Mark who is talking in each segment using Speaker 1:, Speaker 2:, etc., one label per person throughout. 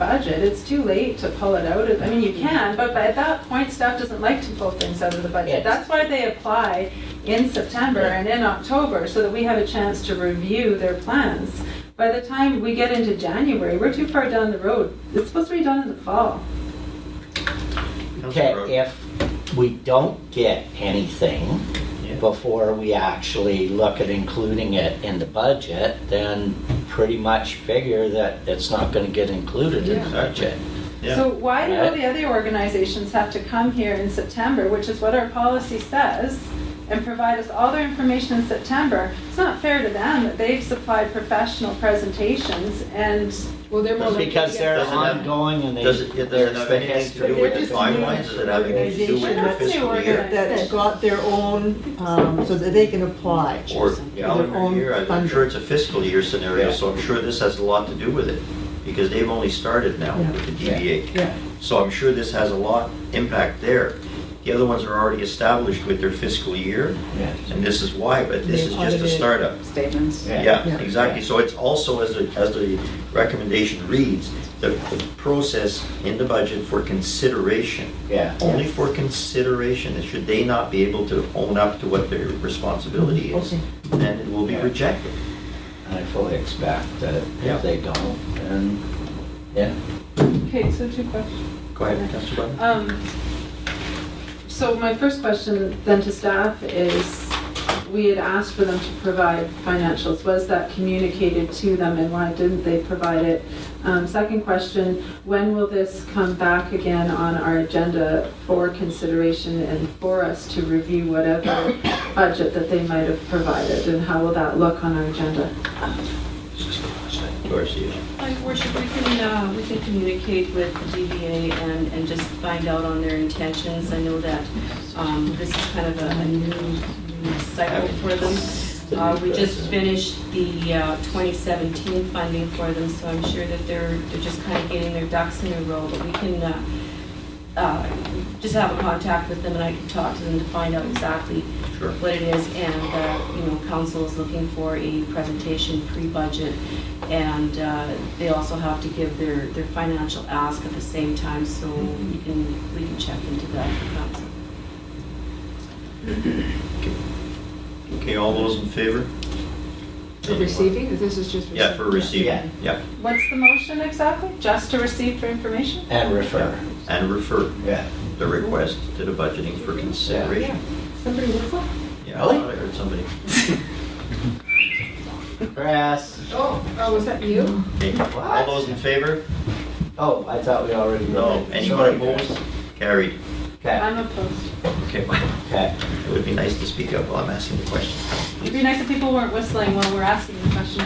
Speaker 1: budget, it's too late to pull it out of, I mean, you
Speaker 2: Mm-hmm.
Speaker 1: can, but by- at that point, staff doesn't like to pull things out of the budget.
Speaker 3: Yes.
Speaker 1: That's why they apply in September and in October, so that we have a chance to review their plans. By the time we get into January, we're too far down the road. It's supposed to be done in the fall.
Speaker 3: that if we don't get anything before we actually look at including it in the budget, then pretty much figure that it's not gonna get included in the
Speaker 2: Yeah.
Speaker 3: budget.
Speaker 2: Yeah,
Speaker 1: So why do all the other organizations have to come here in September, which is what our policy says, and provide us all their information in September? It's not fair to them that they've supplied professional presentations and
Speaker 2: well, they're more likely
Speaker 3: Because
Speaker 2: to
Speaker 3: they're
Speaker 2: get
Speaker 4: Doesn't have-
Speaker 3: ongoing and they.
Speaker 4: Does it, it doesn't
Speaker 3: there's
Speaker 4: have
Speaker 3: the
Speaker 4: anything to
Speaker 3: history
Speaker 4: do with
Speaker 3: of
Speaker 4: the
Speaker 3: it.
Speaker 4: timeline, does it have anything to do with your fiscal year?
Speaker 5: That's got their own, um, so that they can apply.
Speaker 4: Or
Speaker 5: Their own
Speaker 4: calendar year, I'm
Speaker 5: funding.
Speaker 4: sure it's a fiscal year scenario,
Speaker 3: Yeah.
Speaker 4: so I'm sure this has a lot to do with it, because they've only started now
Speaker 5: Yeah.
Speaker 4: with the
Speaker 3: Yeah.
Speaker 4: DBA.
Speaker 5: Yeah,
Speaker 4: So I'm sure this has a lot impact there. The other ones are already established with their fiscal year,
Speaker 3: Yeah.
Speaker 4: and this is why, but this
Speaker 5: They've
Speaker 4: is just a
Speaker 5: audited.
Speaker 4: startup.
Speaker 2: statements.
Speaker 3: Yeah.
Speaker 4: Yeah,
Speaker 5: Yeah.
Speaker 4: exactly. So it's also, as the, as the recommendation reads, the the process in the budget for consideration.
Speaker 3: Yeah.
Speaker 4: Only for consideration, and should they not be able to own up to what their responsibility is,
Speaker 5: Okay.
Speaker 4: then it will be
Speaker 3: Yeah.
Speaker 4: rejected.
Speaker 3: I fully expect that
Speaker 4: Yeah.
Speaker 3: if they don't, then, yeah.
Speaker 1: Okay, so two questions.
Speaker 4: Go ahead, Councilor Butler.
Speaker 1: Um, So my first question then to staff is, we had asked for them to provide financials. Was that communicated to them and why didn't they provide it? Um, Second question, when will this come back again on our agenda for consideration and for us to review whatever budget that they might have provided? And how will that look on our agenda?
Speaker 4: Dorsey.
Speaker 6: My worship, we can, uh, we can communicate with the DVA and, and just find out on their intentions. I know that um, this is kind of a a new new cycle for them. Uh, We just finished the uh, 2017 funding for them, so I'm sure that they're, they're just kind of getting their ducks in a row. But we can uh, uh, just have a contact with them and I can talk to them to find out exactly
Speaker 4: Sure.
Speaker 6: what it is, and, uh, you know, council is looking for a presentation pre-budget, and uh, they also have to give their, their financial ask at the same time, so we can, we can check into that for council.
Speaker 4: Okay, all those in favor?
Speaker 2: For Receiving, this is just.
Speaker 4: Yeah, for
Speaker 3: Yeah.
Speaker 4: receiving, yeah,
Speaker 1: What's the motion exactly? Just to receive for information?
Speaker 3: And refer,
Speaker 4: and refer
Speaker 3: yeah.
Speaker 4: the request to the budgeting for consideration.
Speaker 2: Somebody whistle?
Speaker 4: Yeah,
Speaker 3: Really?
Speaker 4: I heard somebody.
Speaker 3: Press.
Speaker 2: Oh, oh, was that you?
Speaker 4: Okay, All
Speaker 3: What?
Speaker 4: those in favor?
Speaker 3: Oh, I thought we already. did
Speaker 4: No,
Speaker 3: that.
Speaker 4: anyone
Speaker 3: Sorry.
Speaker 4: opposed? Carried.
Speaker 3: Okay,
Speaker 1: I'm opposed.
Speaker 4: Okay,
Speaker 3: okay.
Speaker 4: it would be nice to speak up while I'm asking the question.
Speaker 1: It'd be nice if people weren't whistling while we're asking the question.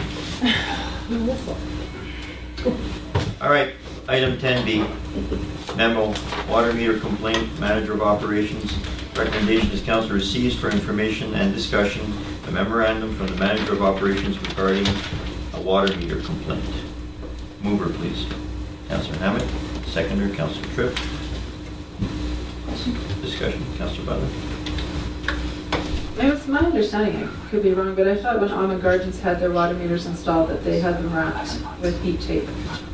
Speaker 4: All right, item 10B, memo, water meter complaint, manager of operations. Recommendation is council receives for information and discussion a memorandum from the manager of operations regarding a water meter complaint. Mover, please. Councilor Hammond, seconder, Councilor Tripp. Discussion, Councilor Butler.
Speaker 1: It was my understanding, I could be wrong, but I thought when Almond Gardens had their water meters installed, that they had them wrapped with heat tape.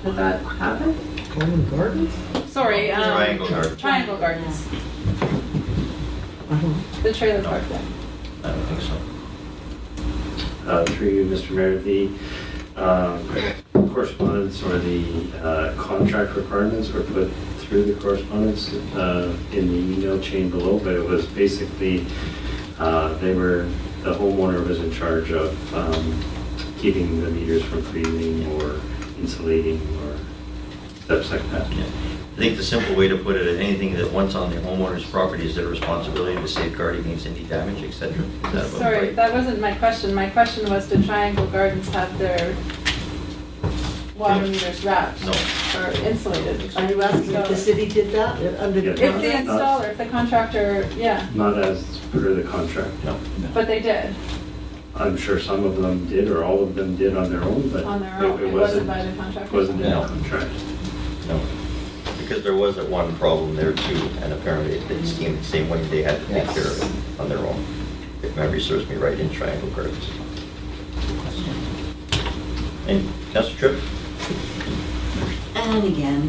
Speaker 1: Did that happen?
Speaker 5: Common Gardens?
Speaker 1: Sorry, um.
Speaker 4: Triangle Gardens.
Speaker 1: Triangle Gardens,
Speaker 5: I don't know.
Speaker 1: the trailer park there.
Speaker 4: I don't think so.
Speaker 7: Uh, Through you, Mr. Mayor, the um, correspondence or the uh, contract requirements were put through the correspondence uh, in the email chain below, but it was basically, uh, they were, the homeowner was in charge of um, keeping the meters from freezing or insulating or steps like that.
Speaker 4: Yeah. I think the simple way to put it is anything that once on the homeowner's property is their responsibility to safeguard against any damage, et cetera. Is that about
Speaker 1: Sorry,
Speaker 4: right?
Speaker 1: that wasn't my question, my question was did Triangle Gardens have their water
Speaker 4: Yeah.
Speaker 1: meters wrapped?
Speaker 4: No.
Speaker 1: Or insulated?
Speaker 5: Are you asking if the city did that uh, under the
Speaker 7: If
Speaker 1: If the
Speaker 5: contract?
Speaker 1: installer, if the contractor, yeah,
Speaker 7: Not as per the contract, no.
Speaker 1: but they did,
Speaker 7: I'm sure some of them did, or all of them did on their own, but
Speaker 1: on their own,
Speaker 7: it-
Speaker 1: it wasn't by the contractor.
Speaker 7: Wasn't in
Speaker 3: No.
Speaker 7: the contract.
Speaker 4: No, because there was that one problem there too, and apparently it seemed the same way they had to take
Speaker 3: Yes.
Speaker 4: care of it on their own. If memory serves me right, in Triangle Gardens. And Council Tripp?
Speaker 5: and again.